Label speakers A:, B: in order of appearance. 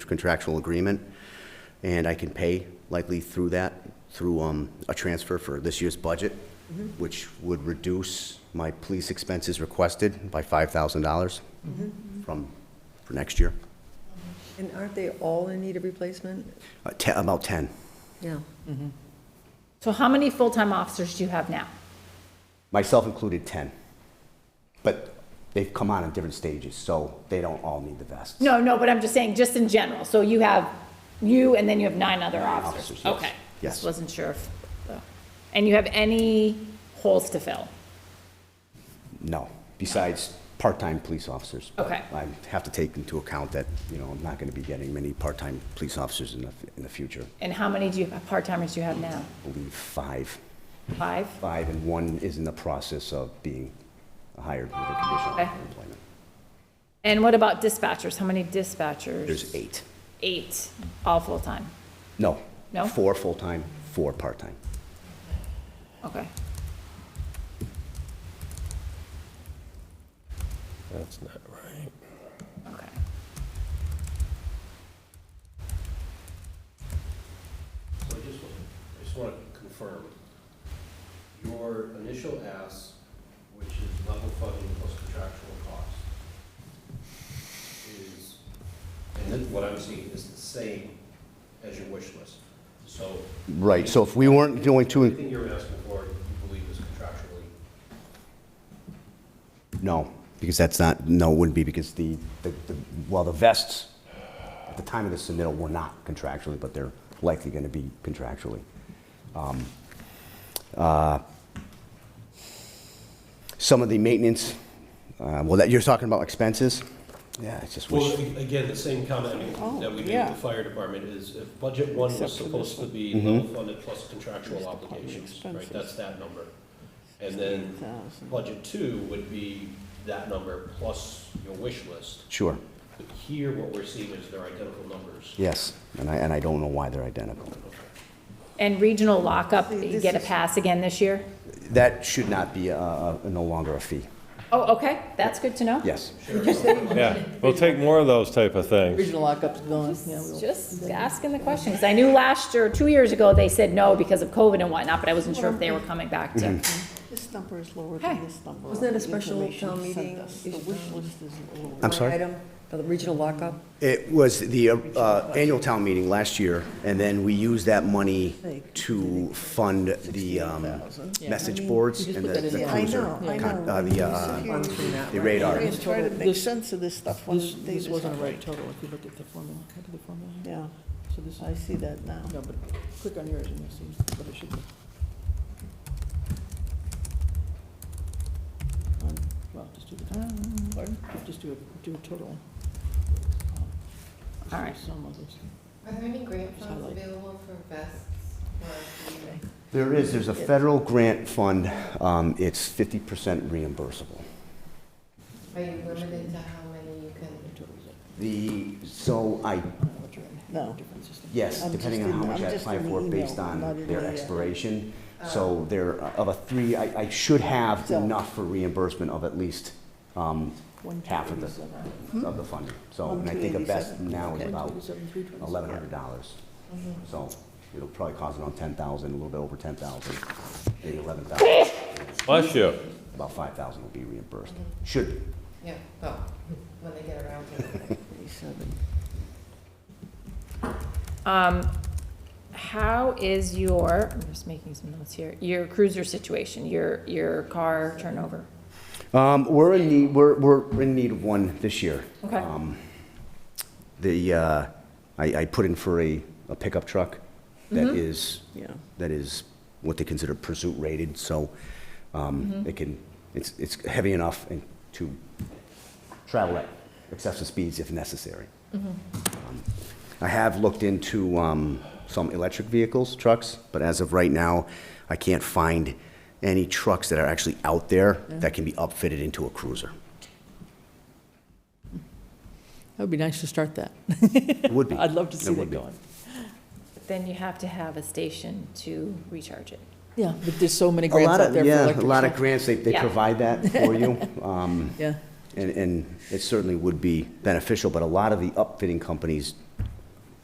A: contractual agreement, and I can pay likely through that, through um, a transfer for this year's budget,
B: Mm-hmm.
A: which would reduce my police expenses requested by $5,000
B: Mm-hmm.
A: from, for next year.
C: And aren't they all in need of replacement?
A: Uh, te- About 10.
C: Yeah.
B: So how many full-time officers do you have now?
A: myself included 10. But they've come on in different stages, so they don't all need the vests.
B: No, no, but I'm just saying, just in general, so you have you and then you have nine other officers?
A: officers, yes.
B: Okay.
A: Yes.
B: Just wasn't sure if, and you have any holes to fill?
A: No, besides part-time police officers. But
B: Okay.
A: I have to take into account that, you know, I'm not going to be getting many part-time police officers in the, in the future.
B: And how many do you, part-timers do you have now?
A: I believe five.
B: Five?
A: Five, and one is in the process of being hired with a conditional
B: Okay.
A: employment.
B: And what about dispatchers? How many dispatchers?
A: There's eight.
B: Eight, all full-time?
A: No.
B: No?
A: Four full-time, four part-time.
B: Okay.
D: That's not right.
B: Okay.
D: So I just, I just want to confirm, your initial ask, which is level funding plus contractual cost, is, and then what I'm seeing is the same as your wish list. So
A: Right, so if we weren't going to,
D: everything you're asking for, you believe is contractually
A: No, because that's not, no, it wouldn't be, because the, the, the- well, the vests, at the time of the submittal, were not contractually, but they're likely going to be contractually. Um, uh, Some of the maintenance, uh, well, that, you're talking about expenses? Yeah, I just
D: Well,
A: wish,
D: a- again, the same comment that we made with the fire department is if budget one was supposed to be level funded plus contractual obligations, right? That's that number. And then budget two would be that number plus your wish list.
A: sure,
D: But here, what we're seeing is they're identical numbers.
A: yes, and I, and I don't know why they're identical.
B: And regional lockup, you
C: this
B: get a
C: is-
B: pass again this year?
A: That should not be, uh, uh, no longer a fee,
B: Oh, okay, that's good to know.
A: yes.
E: Yeah, we'll take more of those type of things.
F: Regional lockup's gone, yeah. we'll-
B: Just asking the question, 'cause I knew last year, two years ago, they said no because of COVID and whatnot, but I wasn't sure if they were coming back to.
G: This number is lower
B: Hey.
G: than this number.
C: Wasn't that a
G: on the
C: special town
G: information sent
C: meeting
G: us. The
C: issue?
G: wish list is a little.
A: I'm sorry?
C: Item, for the regional lockup?
A: It was the uh, uh, annual town meeting last year, and then we used that money to fund the um, message boards and the the
G: I
A: cruiser,
G: know, I
A: con- uh,
G: know.
A: the uh,
C: One from that,
A: the
C: right?
A: radar.
G: I'm just trying to make
F: This-
G: sense of this stuff when
F: This,
G: the
F: this
G: data's
F: wasn't a
G: not
F: right total, if you look at the formula, how did the formula?
G: Yeah,
F: So this
G: I
F: is,
G: see that now.
F: no, but click on yours and you'll see what it should be. Um, Well, just do the, pardon, just do a, do a total.
B: All right.
F: Some of those.
H: Are there any grant funds
F: highlight.
H: available for vests or for
A: There is, there's a federal grant fund, um, it's 50% reimbursable.
H: Are you limited to how many you can?
A: The, so I,
G: No.
A: yes,
G: I'm
A: depending
G: just
A: on how
G: in-
A: much
G: I'm
A: I
G: just
A: apply
G: in the
A: for
G: email,
A: based
G: not in
A: on their
G: the, uh,
A: expiration. So there, of a three, I I should have
G: So-
A: enough for reimbursement of at least um,
F: One
A: half of the
F: thirty-seven.
G: Hmm?
A: of the funding. So, and I think a vest now is about
F: Thirty-seven, three twenty-seven.
A: eleven hundred dollars.
G: Mm-hmm.
A: So it'll probably cost around ten thousand, a little bit over ten thousand, maybe eleven thousand.
E: Bless you.
A: About five thousand will be reimbursed,
G: Mm-hmm.
A: should be.
H: Yeah, well, when they get around to it.
B: Um, how is your, I'm just making some notes here, your cruiser situation, your, your car turnover?
A: Um, we're in need, we're, we're in need of one this year.
B: Okay.
A: Um, The, uh, I, I put in for a, a pickup truck that
F: Mm-hmm.
A: is,
G: Yeah.
A: that is what they consider pursuit rated, so,
F: Mm-hmm.
A: um, it can, it's, it's heavy enough and to travel at excessive speeds if necessary.
F: Mm-hmm.
A: Um, I have looked into, um, some electric vehicles, trucks, but as of right now, I can't find any trucks that are actually out there that can be upfitted into a cruiser.
F: That would be nice to start that.
A: It would be.
F: I'd love to
A: It
F: see
A: would
F: that
A: be.
F: going.
B: Then you have to have a station to recharge it.
F: Yeah, but there's so many
A: A
F: grants
A: lot
F: out
A: of,
F: there for
A: yeah,
F: electric.
A: a lot of
F: truck.
A: grants, they, they
B: Yeah.
A: provide that for you. um,
F: Yeah.
A: And, and it certainly would be beneficial, but a lot of the upfitting companies